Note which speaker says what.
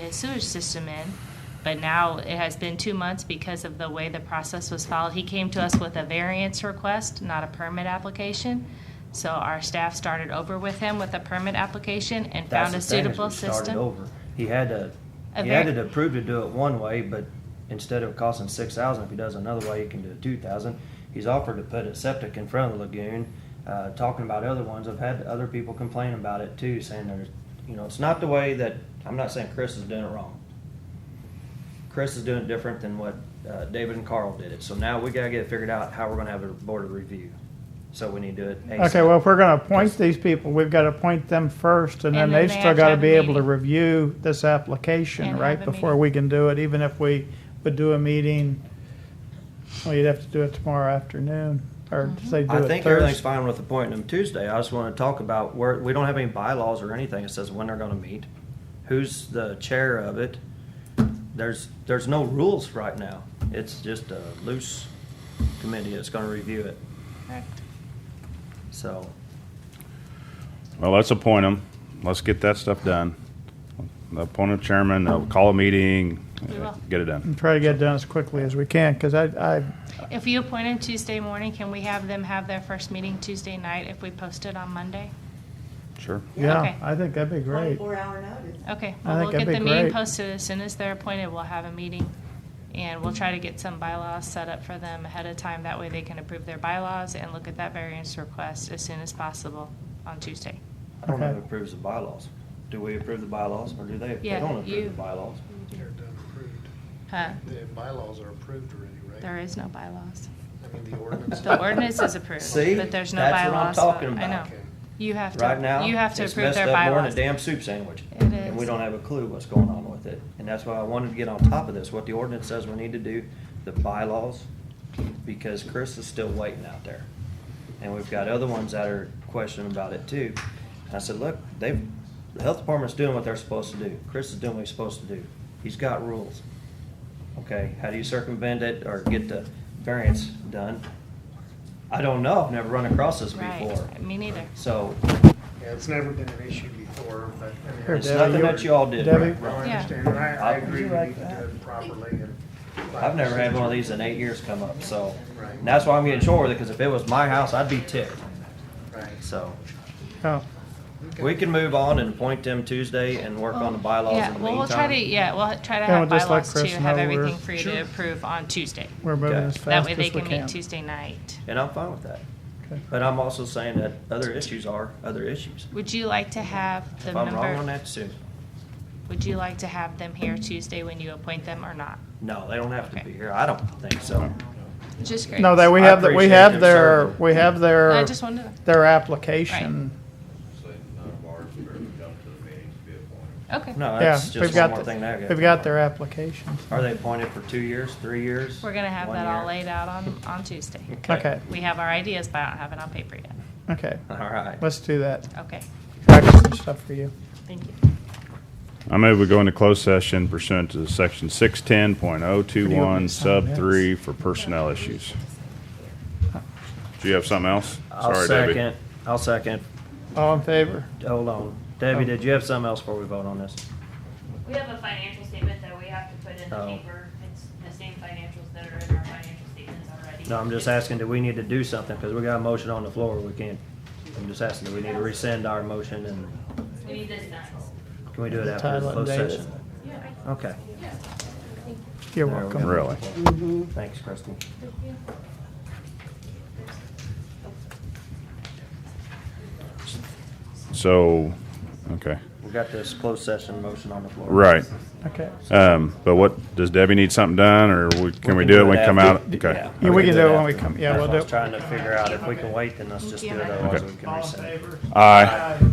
Speaker 1: a sewage system in, but now it has been two months because of the way the process was followed. He came to us with a variance request, not a permit application. So our staff started over with him with a permit application and
Speaker 2: That's
Speaker 1: found
Speaker 2: the
Speaker 1: a
Speaker 2: thing, is
Speaker 1: suitable
Speaker 2: we started
Speaker 1: system.
Speaker 2: over. He had to,
Speaker 1: A
Speaker 2: he had
Speaker 1: ver-
Speaker 2: it approved to do it one way, but instead of costing six thousand, if he does another way, he can do it two thousand. He's offered to put a septic in front of the lagoon, uh, talking about other ones. I've had other people complain about it too, saying there's, you know, it's not the way that, I'm not saying Chris is doing it wrong. Chris is doing it different than what, uh, David and Carl did it. So now we gotta get it figured out how we're gonna have a board of review. So we need to do it.
Speaker 3: Okay,
Speaker 2: ASAP.
Speaker 3: well, if we're gonna appoint these people, we've gotta appoint them first, and then
Speaker 1: And then
Speaker 3: they've
Speaker 1: they
Speaker 3: still
Speaker 1: have to
Speaker 3: gotta
Speaker 1: have a
Speaker 3: be able to
Speaker 1: meeting.
Speaker 3: review this application,
Speaker 1: And
Speaker 3: right,
Speaker 1: have a
Speaker 3: before
Speaker 1: meeting.
Speaker 3: we can do it, even if we would do a meeting. Well, you'd have to do it tomorrow afternoon, or
Speaker 1: Mm-hmm.
Speaker 3: say do
Speaker 2: I
Speaker 3: it
Speaker 2: think everything's
Speaker 3: Thursday.
Speaker 2: fine with appointing them Tuesday. I just want to talk about where, we don't have any bylaws or anything that says when they're gonna meet, who's the chair of it. There's, there's no rules right now. It's just a loose committee that's gonna review it, so.
Speaker 4: Well, let's appoint them. Let's get that stuff done. Appoint a chairman, uh, call a meeting,
Speaker 1: We will.
Speaker 4: get it done.
Speaker 3: And try to get it done as quickly as we can, cause I, I,
Speaker 1: If you appoint him Tuesday morning, can we have them have their first meeting Tuesday night if we post it on Monday?
Speaker 4: Sure.
Speaker 3: yeah,
Speaker 1: Okay.
Speaker 3: I think that'd be great.
Speaker 5: Twenty-four hour notice.
Speaker 1: Okay,
Speaker 3: I
Speaker 1: well, we'll
Speaker 3: think that'd
Speaker 1: get the
Speaker 3: be
Speaker 1: meeting
Speaker 3: great.
Speaker 1: posted as soon as they're appointed, we'll have a meeting. And we'll try to get some bylaws set up for them ahead of time, that way they can approve their bylaws and look at that variance request as soon as possible on Tuesday.
Speaker 2: I don't know who
Speaker 3: Okay.
Speaker 2: approves the bylaws. Do we approve the bylaws or do they? They
Speaker 1: Yeah,
Speaker 2: don't
Speaker 1: you-
Speaker 2: approve the bylaws.
Speaker 6: They're done approved.
Speaker 1: Huh,
Speaker 6: The bylaws are approved already, right?
Speaker 1: there is no bylaws.
Speaker 6: I mean, the ordinance.
Speaker 1: The ordinance is approved,
Speaker 2: See?
Speaker 1: but there's no
Speaker 2: That's what I'm
Speaker 1: bylaws.
Speaker 2: talking
Speaker 1: I know.
Speaker 2: about.
Speaker 6: Okay.
Speaker 1: You have
Speaker 2: Right
Speaker 1: to,
Speaker 2: now,
Speaker 1: you have to
Speaker 2: it's
Speaker 1: approve
Speaker 2: messed
Speaker 1: their
Speaker 2: up more than
Speaker 1: bylaws.
Speaker 2: a damn soup sandwich.
Speaker 1: It
Speaker 2: And we
Speaker 1: is.
Speaker 2: don't have a clue what's going on with it. And that's why I wanted to get on top of this, what the ordinance says we need to do, the bylaws, because Chris is still waiting out there. And we've got other ones that are questioning about it too. And I said, look, they've, the health department's doing what they're supposed to do. Chris is doing what he's supposed to do. He's got rules. Okay, how do you circumvent it or get the variance done? I don't know. I've never run across this before.
Speaker 1: Right, me neither.
Speaker 2: So
Speaker 6: Yeah, it's never been an issue before, but. I mean,
Speaker 3: Here,
Speaker 2: it's
Speaker 3: Debbie,
Speaker 2: nothing
Speaker 3: you-
Speaker 2: that you all did.
Speaker 3: Debbie?
Speaker 6: No, I
Speaker 1: Yeah.
Speaker 6: understand, and I, I
Speaker 2: Would
Speaker 6: agree,
Speaker 3: you
Speaker 6: we need
Speaker 3: like
Speaker 6: to
Speaker 3: that?
Speaker 6: do it properly and.
Speaker 2: I've never had one of these in eight years come up, so.
Speaker 6: Right.
Speaker 2: And that's why I'm getting short with it, because if it was my house, I'd be ticked.
Speaker 6: Right.
Speaker 2: So,
Speaker 3: Oh,
Speaker 2: we can move on and appoint them Tuesday and work on the bylaws
Speaker 1: Oh, Yeah,
Speaker 2: in the
Speaker 1: well, we'll try to,
Speaker 2: meantime.
Speaker 1: yeah, we'll try to
Speaker 3: Yeah,
Speaker 1: have
Speaker 3: we'll just let
Speaker 1: bylaws to
Speaker 3: Chris
Speaker 1: have
Speaker 3: know we're-
Speaker 1: everything for you to
Speaker 6: Sure.
Speaker 1: approve on Tuesday.
Speaker 3: we're moving
Speaker 2: Okay.
Speaker 3: as
Speaker 1: That
Speaker 3: fast
Speaker 1: way they
Speaker 3: as we
Speaker 1: can meet
Speaker 3: can.
Speaker 1: Tuesday night.
Speaker 2: And I'm fine with that.
Speaker 3: Okay.
Speaker 2: But I'm also saying that other issues are other issues.
Speaker 1: Would you like to have the
Speaker 2: If I'm wrong on
Speaker 1: member,
Speaker 2: that, sue me.
Speaker 1: would you like to have them here Tuesday when you appoint them or not?
Speaker 2: No, they don't have to
Speaker 1: Okay.
Speaker 2: be here. I don't think so.
Speaker 1: Just great.
Speaker 3: No, that we
Speaker 2: I
Speaker 3: have, the- we
Speaker 2: appreciate
Speaker 3: have
Speaker 2: them
Speaker 3: their,
Speaker 2: serving.
Speaker 3: we have
Speaker 1: I
Speaker 3: their,
Speaker 1: just wanted to,
Speaker 3: their application.
Speaker 7: So none of ours are come to the meetings to be appointed.
Speaker 1: okay.
Speaker 2: No,
Speaker 3: Yeah,
Speaker 2: that's
Speaker 3: we've
Speaker 2: Oh, just one
Speaker 3: got,
Speaker 2: more thing
Speaker 3: the-
Speaker 2: that I got.
Speaker 3: we've got their applications.
Speaker 2: Are they appointed for two years, three years?
Speaker 1: We're gonna have
Speaker 2: one
Speaker 1: that all
Speaker 2: year?
Speaker 1: laid out on, on Tuesday.
Speaker 3: Okay,
Speaker 1: We have our ideas, but I don't have it on paper yet.
Speaker 3: okay,
Speaker 2: All right.
Speaker 3: let's do that.
Speaker 1: Okay,
Speaker 3: I got some stuff for you.
Speaker 1: thank you.
Speaker 4: I move we go into closed session pursuant to section six ten point oh two one sub three for personnel issues. Do you have something else?
Speaker 2: I'll
Speaker 4: Sorry, Debbie.
Speaker 2: second, I'll second.
Speaker 3: All in favor?
Speaker 2: Hold on.
Speaker 3: Oh.
Speaker 2: Debbie, did you have something else before we vote on this?
Speaker 8: We have a financial statement that we have to put in the
Speaker 2: Oh.
Speaker 8: paper. It's the same financials that are in our financial statements already.
Speaker 2: No, I'm just asking, do we need to do something? Because we got a motion on the floor, we can't, I'm just asking, do we need to rescind our motion and
Speaker 8: We need this next.
Speaker 2: can we do it after
Speaker 3: Title
Speaker 2: the
Speaker 3: and
Speaker 2: closed
Speaker 3: date.
Speaker 2: session? Okay, There
Speaker 3: You're
Speaker 2: we
Speaker 3: welcome. Mm-hmm.
Speaker 2: go.
Speaker 4: Really?
Speaker 2: thanks, Kristen.
Speaker 4: So, okay,
Speaker 2: We got this closed session motion on the floor.
Speaker 4: right.
Speaker 3: Okay.
Speaker 4: Um, but what, does Debbie need something done or we- can we do it when we come out?
Speaker 2: after.
Speaker 4: Okay.
Speaker 3: Yeah, we can do it when we come- yeah,
Speaker 2: That's
Speaker 3: we'll
Speaker 2: what I was
Speaker 3: do it.
Speaker 2: Trying to figure out if we can wait, then let's just do it, otherwise we can rescind.
Speaker 4: Aye.